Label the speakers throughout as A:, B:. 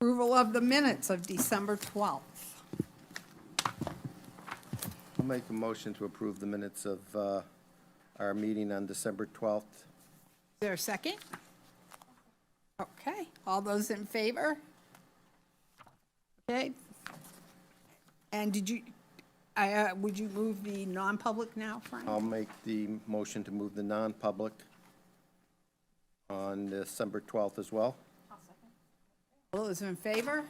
A: Approval of the minutes of December 12th.
B: I'll make a motion to approve the minutes of uh, our meeting on December 12th.
A: Is there a second? Okay, all those in favor? Okay. And did you, I, uh, would you move the non-public now, Frank?
B: I'll make the motion to move the non-public on December 12th as well.
A: All those in favor?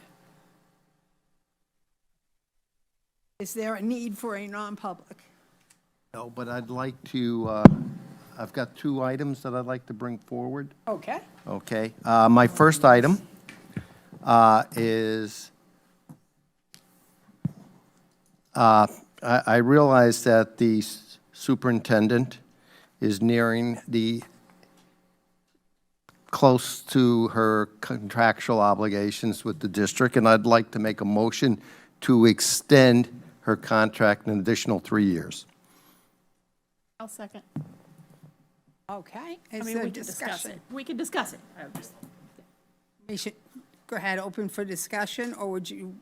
A: Is there a need for a non-public?
B: No, but I'd like to, uh, I've got two items that I'd like to bring forward.
A: Okay,
B: Okay, uh, my first item uh, is, uh, I I realize that the superintendent is nearing the, close to her contractual obligations with the district, and I'd like to make a motion to extend her contract an additional three years.
C: I'll second.
A: okay.
C: I
A: Is
C: mean,
A: there
C: we could discuss
A: discussion?
C: it. We could discuss it. I would just-
A: We should, go ahead, open for discussion, or would you?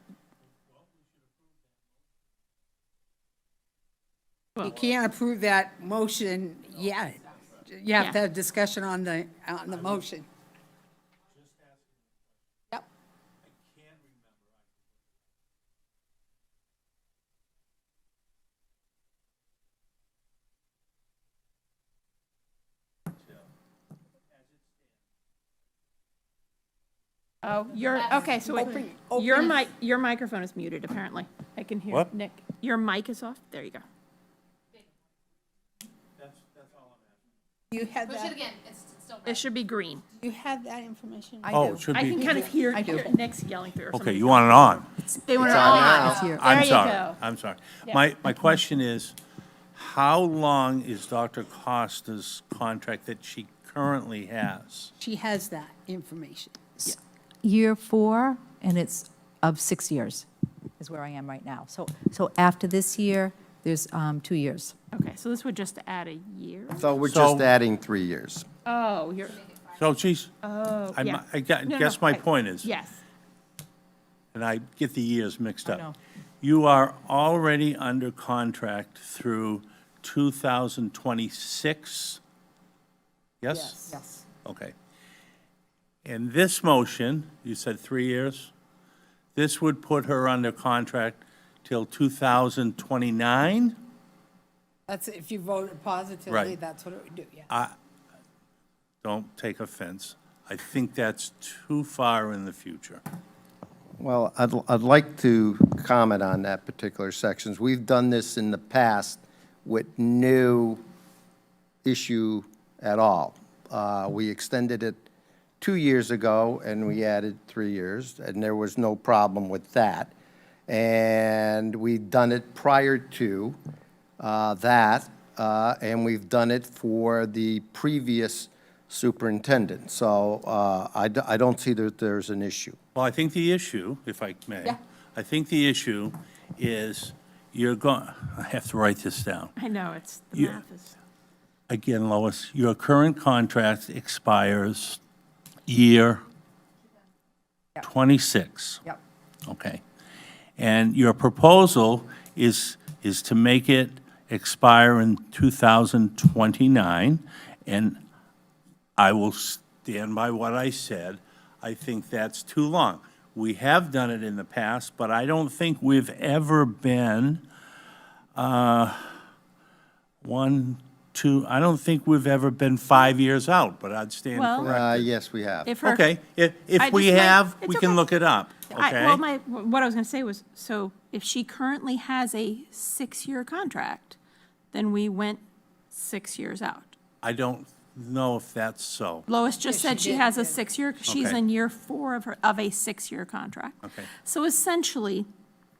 A: You can't approve that motion yet. You have to
C: Yeah.
A: have discussion on the, on the motion. Yep.
C: Oh, you're, okay, so wait.
A: Open-
C: your
A: open-
C: mic, your microphone is muted, apparently. I can hear
D: What?
C: Nick. Your mic is off. There you go.
A: You had
E: Push it
A: that,
E: again. It's it's still red.
C: It should be green.
A: you had that information?
D: Oh, it should
C: I can
D: be,
C: kind of hear
A: I do.
C: hear Nick's yelling through or something.
D: okay, you want it on?
C: They want it on.
A: here.
C: There
D: I'm
C: you
D: sorry,
C: go.
D: I'm sorry.
C: Yeah.
D: My, my question is, how long is Dr. Costa's contract that she currently has?
A: She has that information.
F: year four, and it's of six years, is where I am right now. So, so after this year, there's um, two years.
C: Okay, so this would just add a year?
B: So we're
D: So-
B: just adding three years.
C: Oh, you're,
D: So she's,
C: oh,
D: I'm-
C: yeah.
D: I gu-
C: No, no,
D: guess my
C: I-
D: point is-
C: Yes.
D: and I get the years mixed
F: no.
D: up. You are already under contract through 2026? Yes?
F: Yes.
D: Okay. And this motion, you said three years? This would put her under contract till 2029?
A: That's, if you voted positively,
D: Right.
A: that's what it would do, yeah.
D: Don't take offense. I think that's too far in the future.
B: Well, I'd, I'd like to comment on that particular sections. We've done this in the past with no issue at all. Uh, We extended it two years ago, and we added three years, and there was no problem with that. And we've done it prior to uh, that, uh, and we've done it for the previous superintendent. So uh, I d- I don't see that there's an issue.
D: Well, I think the issue, if I may, I think the issue is you're going, I have to write this down.
C: I know, it's, the
D: Yeah.
C: math is.
D: Again, Lois, your current contract expires year 26.
F: Yep.
D: Okay. And your proposal is, is to make it expire in 2029, and I will stand by what I said. I think that's too long. We have done it in the past, but I don't think we've ever been, uh, one, two, I don't think we've ever been five years out, but I'd stand
C: Well-
D: corrected.
B: Uh, Yes, we have.
C: If her-
D: Okay, if,
C: I
D: if we
C: just like-
D: have,
C: it's
D: we can
C: okay.
D: look it up,
C: I-
D: okay?
C: Well, my, what I was going to say was, so if she currently has a six-year contract, then we went six years out.
D: I don't know if that's so.
C: Lois just said she has a six-year, she's
D: Okay.
C: in year four of her, of a six-year contract.
D: Okay.
C: So essentially,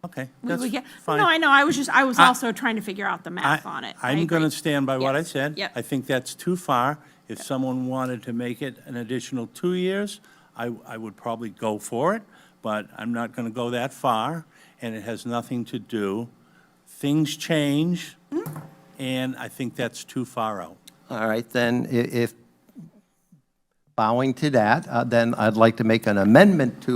D: Okay,
C: we
D: that's
C: would get,
D: fine.
C: no, I know, I was just, I was
D: I-
C: also trying to figure out the math on it. I
D: am going to
C: agree.
D: stand by what I
C: Yes,
D: said.
C: yep.
D: I think that's too far. If someone wanted to make it an additional two years, I, I would probably go for it, but I'm not going to go that far, and it has nothing to do, things change,
C: Mm-hmm.
D: and I think that's too far out.
B: All right, then, i- if bowing to that, uh, then I'd like to make an amendment to